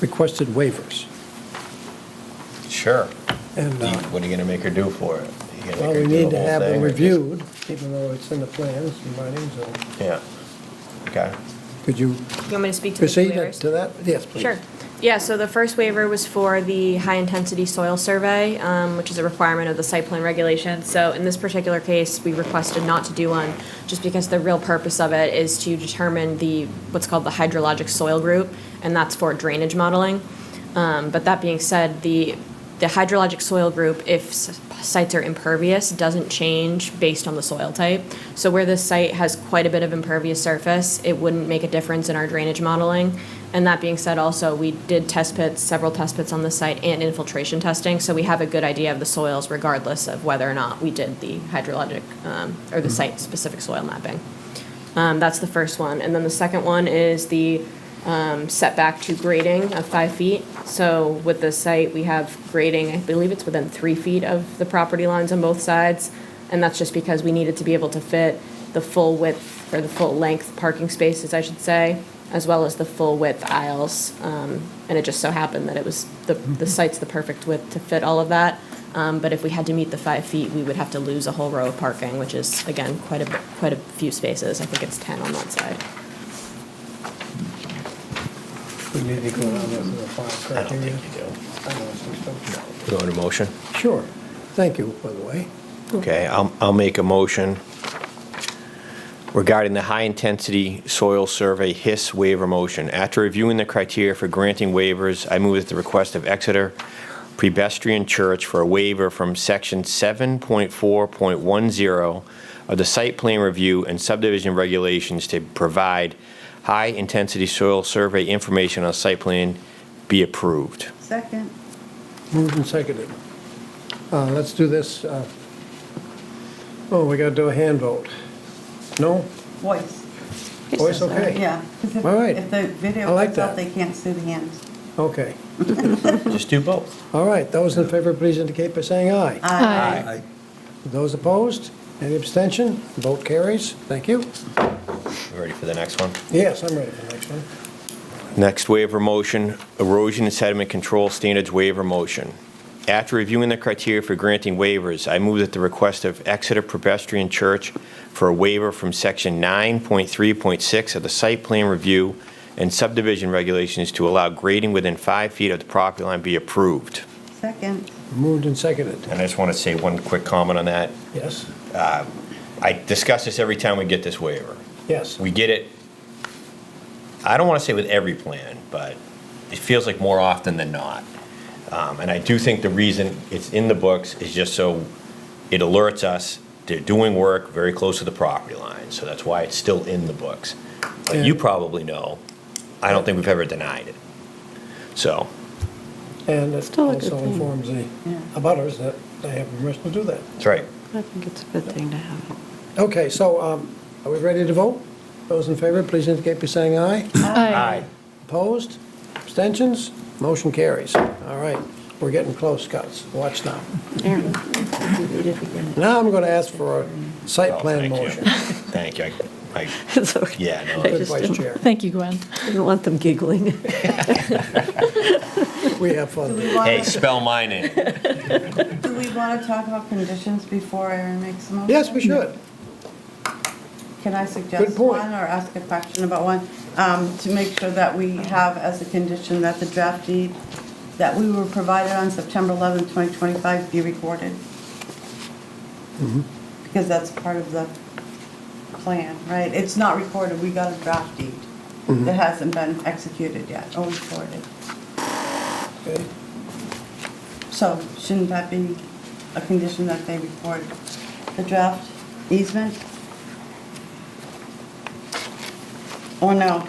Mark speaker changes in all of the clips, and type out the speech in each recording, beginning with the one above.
Speaker 1: requested waivers.
Speaker 2: Sure.
Speaker 1: And
Speaker 2: Do you-
Speaker 1: uh,
Speaker 2: What are you going to make her do for it? You gonna make
Speaker 1: well,
Speaker 2: her
Speaker 1: we
Speaker 2: do the
Speaker 1: need to
Speaker 2: whole
Speaker 1: have
Speaker 2: thing
Speaker 1: them
Speaker 2: or just-
Speaker 1: reviewed, even though it's in the plans and writings. and-
Speaker 2: Yeah. Okay.
Speaker 1: Could you
Speaker 3: You want me to speak to the
Speaker 1: proceed
Speaker 3: waivers?
Speaker 1: to that? Yes, please.
Speaker 3: Sure. Yeah, so the first waiver was for the high-intensity soil survey, um, which is a requirement of the site plan regulations. So in this particular case, we requested not to do one, just because the real purpose of it is to determine the, what's called the hydrologic soil group, and that's for drainage modeling. Um, But that being said, the, the hydrologic soil group, if s- sites are impervious, doesn't change based on the soil type. So where this site has quite a bit of impervious surface, it wouldn't make a difference in our drainage modeling. And that being said, also, we did test pits, several test pits on the site and infiltration testing, so we have a good idea of the soils regardless of whether or not we did the hydrologic, um, or the site-specific soil mapping. Um, That's the first one. And then the second one is the um, setback to grading of five feet. So with this site, we have grading, I believe it's within three feet of the property lines on both sides. And that's just because we needed to be able to fit the full width, or the full length parking spaces, I should say, as well as the full width aisles. Um, And it just so happened that it was, the, the site's the perfect width to fit all of that. Um, But if we had to meet the five feet, we would have to lose a whole row of parking, which is, again, quite a, quite a few spaces. I think it's 10 on that side.
Speaker 1: We need to go down there to the file
Speaker 2: I don't
Speaker 1: criteria.
Speaker 2: think you do.
Speaker 1: I don't think so.
Speaker 2: You want a motion?
Speaker 1: Sure. Thank you, by the way.
Speaker 2: Okay, I'll, I'll make a motion regarding the high-intensity soil survey HIS waiver motion. After reviewing the criteria for granting waivers, I move at the request of Exeter Prebestrian Church for a waiver from Section 7.4.10 of the Site Plan Review and Subdivision Regulations to provide high-intensity soil survey information on site plan be approved.
Speaker 4: Second.
Speaker 1: Moved and seconded. Uh, Let's do this. uh, Oh, we got to do a hand vote. No?
Speaker 4: Voice.
Speaker 1: Voice Oh, okay?
Speaker 4: Yeah. 'Cause if-
Speaker 1: All right.
Speaker 4: If the video
Speaker 1: I like
Speaker 4: cuts out,
Speaker 1: that.
Speaker 4: they can't see the hands.
Speaker 1: Okay.
Speaker 2: Just do both.
Speaker 1: All right, those in favor, please indicate by saying aye.
Speaker 4: Aye.
Speaker 1: Those opposed? Any abstention? Vote carries. Thank you.
Speaker 2: You Ready for the next one?
Speaker 1: Yes, I'm ready for the next one.
Speaker 2: Next waiver motion, erosion and sediment control standards waiver motion. After reviewing the criteria for granting waivers, I move at the request of Exeter Presbyterian Church for a waiver from Section 9.3.6 of the Site Plan Review and Subdivision Regulations to allow grading within five feet of the property line be approved.
Speaker 4: Second.
Speaker 1: Moved and seconded.
Speaker 2: And I just want to say one quick comment on that.
Speaker 1: Yes?
Speaker 2: I discuss this every time we get this waiver.
Speaker 1: Yes.
Speaker 2: we get it, I don't want to say with every plan, but it feels like more often than not. Um, And I do think the reason it's in the books is just so it alerts us they're doing work very close to the property line. So that's why it's still in the books. But you
Speaker 1: Yeah.
Speaker 2: probably know, I don't think we've ever denied it. So,
Speaker 1: And it
Speaker 5: Still a good
Speaker 1: also
Speaker 5: thing.
Speaker 1: informs the
Speaker 4: Yeah.
Speaker 1: abutters that they have permission to do that.
Speaker 2: that's right.
Speaker 5: I think it's a good thing to have it.
Speaker 1: Okay, so um, are we ready to vote? Those in favor, please indicate by saying aye.
Speaker 2: Aye.
Speaker 1: Opposed? Abstentions? Motion carries. All right, we're getting close, Scott. Watch now.
Speaker 5: There. You did it.
Speaker 1: Now I'm going to ask for a site
Speaker 2: Well,
Speaker 1: plan
Speaker 2: thank you.
Speaker 1: motion.
Speaker 2: Thank you. I- I-
Speaker 5: It's okay.
Speaker 2: Yeah, no.
Speaker 5: I
Speaker 1: Good
Speaker 5: just
Speaker 1: vice
Speaker 5: didn't-
Speaker 1: chair.
Speaker 6: Thank you, Gwen.
Speaker 5: didn't want them giggling.
Speaker 1: We have
Speaker 4: Do
Speaker 1: fun.
Speaker 4: we want,
Speaker 2: Hey,
Speaker 4: to
Speaker 2: spell mine in.
Speaker 4: do we want to talk about conditions before Aaron makes a motion?
Speaker 1: Yes, we should.
Speaker 4: Can I suggest
Speaker 1: point.
Speaker 4: one or ask a question about one? Um, To make sure that we have as a condition that the draft deed that we were provided on September 11, 2025 be recorded. Because that's part of the plan, right? It's not recorded, we got a draft deed that hasn't been executed yet or recorded.
Speaker 1: Okay.
Speaker 4: So shouldn't that be a condition that they record the draft easement? Or no?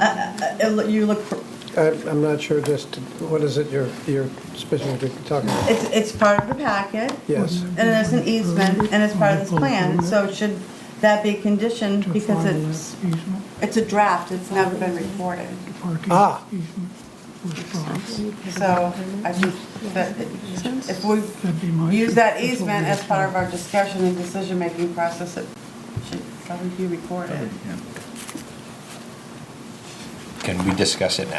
Speaker 4: Uh, uh, uh, You look, for-
Speaker 1: I- I'm not sure just, what is it you're you're specifically talking about?
Speaker 4: it's, it's part of the packet.
Speaker 1: Yes.
Speaker 4: And there's an easement, and it's part of this plan, so should that be conditioned because it's, it's a draft, it's never been recorded.
Speaker 1: Ah.
Speaker 4: So I think that it- if we use that easement as part of our discussion and decision-making process, it should probably be recorded.
Speaker 2: Can we discuss it now?